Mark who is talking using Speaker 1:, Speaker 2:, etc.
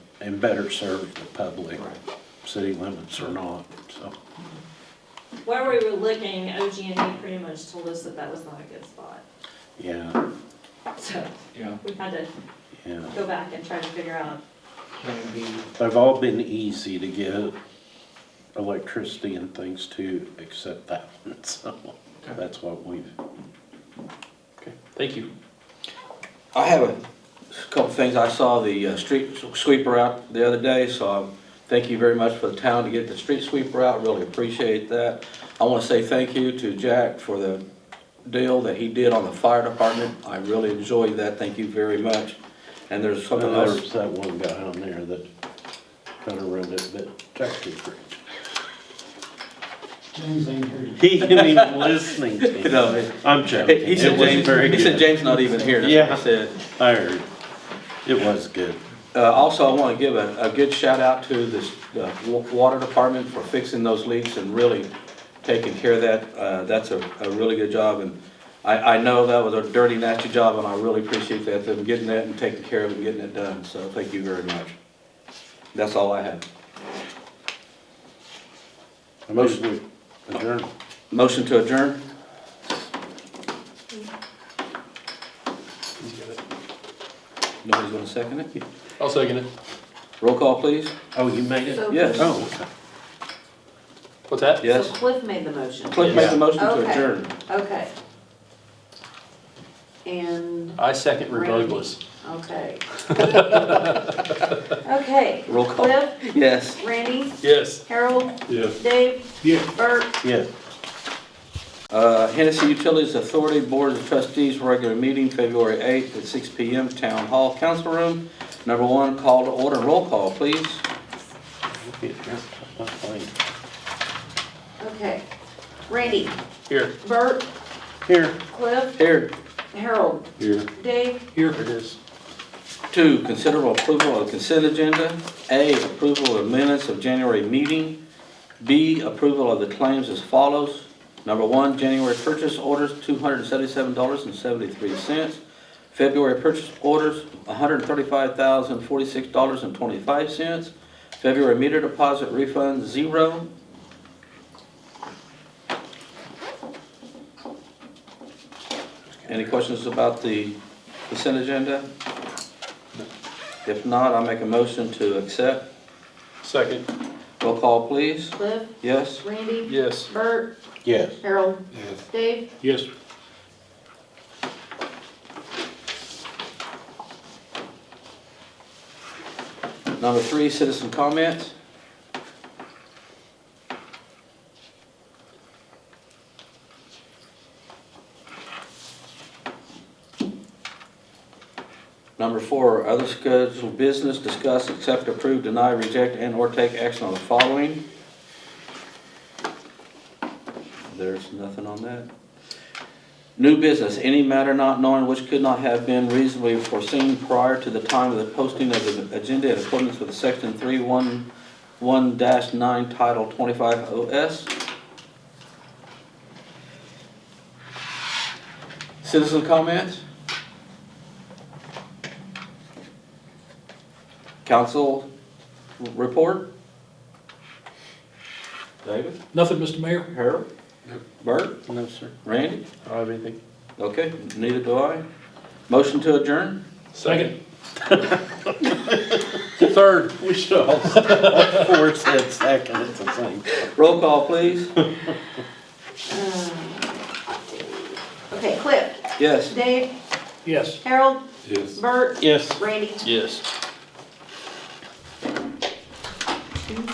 Speaker 1: and better serve the public,
Speaker 2: Right.
Speaker 1: city limits or not, so.
Speaker 3: Where we were looking, OG&E E pretty much told us that that was not a good spot.
Speaker 1: Yeah,
Speaker 3: So
Speaker 2: Yeah,
Speaker 3: we had to
Speaker 1: yeah.
Speaker 3: go back and try to figure out.
Speaker 2: can it be,
Speaker 1: They've all been easy to get electricity and things to, except that one, so
Speaker 2: Okay.
Speaker 1: that's what we've.
Speaker 2: okay, thank you.
Speaker 4: I have a couple things. I saw the uh, street sweeper out the other day, so um, thank you very much for the town to get the street sweeper out. Really appreciate that. I want to say thank you to Jack for the deal that he did on the fire department. I really enjoyed that. Thank you very much. And there's
Speaker 1: And
Speaker 4: something else.
Speaker 1: there's that one guy on there that kind of ruined it, but technically great.
Speaker 5: James ain't here.
Speaker 1: He isn't even listening to me.
Speaker 4: No, he-
Speaker 1: I'm
Speaker 4: He
Speaker 1: joking.
Speaker 4: he said
Speaker 1: It was very
Speaker 4: James, he
Speaker 1: good.
Speaker 4: said James not even here. That's
Speaker 1: Yeah.
Speaker 4: what he said.
Speaker 1: I heard. It was good.
Speaker 4: Uh, also, I want to give a, a good shout out to this, the wa- water department for fixing those leaks and really taking care of that. Uh, that's a, a really good job and I, I know that was a dirty, nasty job and I really appreciate that, them getting that and taking care of it, and getting it done. So thank you very much. That's all I have.
Speaker 1: Motion adjourned.
Speaker 4: Motion to adjourn? Nobody's gonna second it?
Speaker 2: I'll second it.
Speaker 4: Roll call, please.
Speaker 1: Oh, you made it?
Speaker 6: So-
Speaker 4: Yes.
Speaker 1: Oh, okay.
Speaker 2: What's that?
Speaker 6: So
Speaker 4: Yes.
Speaker 6: Cliff made the motion.
Speaker 4: Cliff made the motion to
Speaker 6: Okay.
Speaker 4: adjourn.
Speaker 6: Okay. And,
Speaker 2: I second regardless.
Speaker 6: okay. Okay.
Speaker 4: Roll call.
Speaker 6: Cliff,
Speaker 4: Yes.
Speaker 6: Randy,
Speaker 2: Yes.
Speaker 6: Harold,
Speaker 2: Yes.
Speaker 6: Dave.
Speaker 5: Yeah.
Speaker 6: Bert.
Speaker 1: yes.
Speaker 4: Uh, Hennessy Utilities Authority Board of Trustees, regular meeting, February 8th at 6 PM, Town Hall, Council Room. Number one, call to order, roll call, please.
Speaker 6: Okay. Randy,
Speaker 2: Here.
Speaker 6: Bert,
Speaker 1: Here.
Speaker 6: Cliff,
Speaker 4: Here,
Speaker 6: Harold,
Speaker 1: Here.
Speaker 6: Dave,
Speaker 2: Here it is.
Speaker 4: two, considerable approval of consent agenda. A, approval of minutes of January meeting. B, approval of the claims as follows. Number one, January purchase orders, $277.73. February purchase orders, $135,046.25. February meter deposit refund, zero. Any questions about the consent agenda? If not, I make a motion to accept.
Speaker 2: Second.
Speaker 4: Roll call, please.
Speaker 6: Cliff,
Speaker 4: Yes?
Speaker 6: Randy,
Speaker 2: Yes.
Speaker 6: Bert,
Speaker 1: Yes.
Speaker 6: Harold, Dave.
Speaker 5: Yes.
Speaker 4: Number three, citizen comments. Number four, other scheduled business, discuss, accept, approve, deny, reject, and/or take action on the following. There's nothing on that. New business, any matter not known which could not have been reasonably foreseen prior to the time of the posting of the agenda in accordance with section three one one nine, title twenty-five OS. Citizen comments? Council report? David?
Speaker 2: Nothing, Mr. Mayor.
Speaker 4: Harold? Bert?
Speaker 1: No, sir.
Speaker 4: Randy?
Speaker 2: I don't have anything.
Speaker 4: Okay, neither do I. Motion to adjourn?
Speaker 2: Second. Third.
Speaker 1: We should all, all four said second at the same time.
Speaker 4: Roll call, please.
Speaker 6: Okay, Cliff,
Speaker 4: Yes.
Speaker 6: Dave,
Speaker 2: Yes.
Speaker 6: Harold,
Speaker 2: Yes.
Speaker 6: Bert,
Speaker 1: Yes.
Speaker 6: Randy.
Speaker 2: Yes.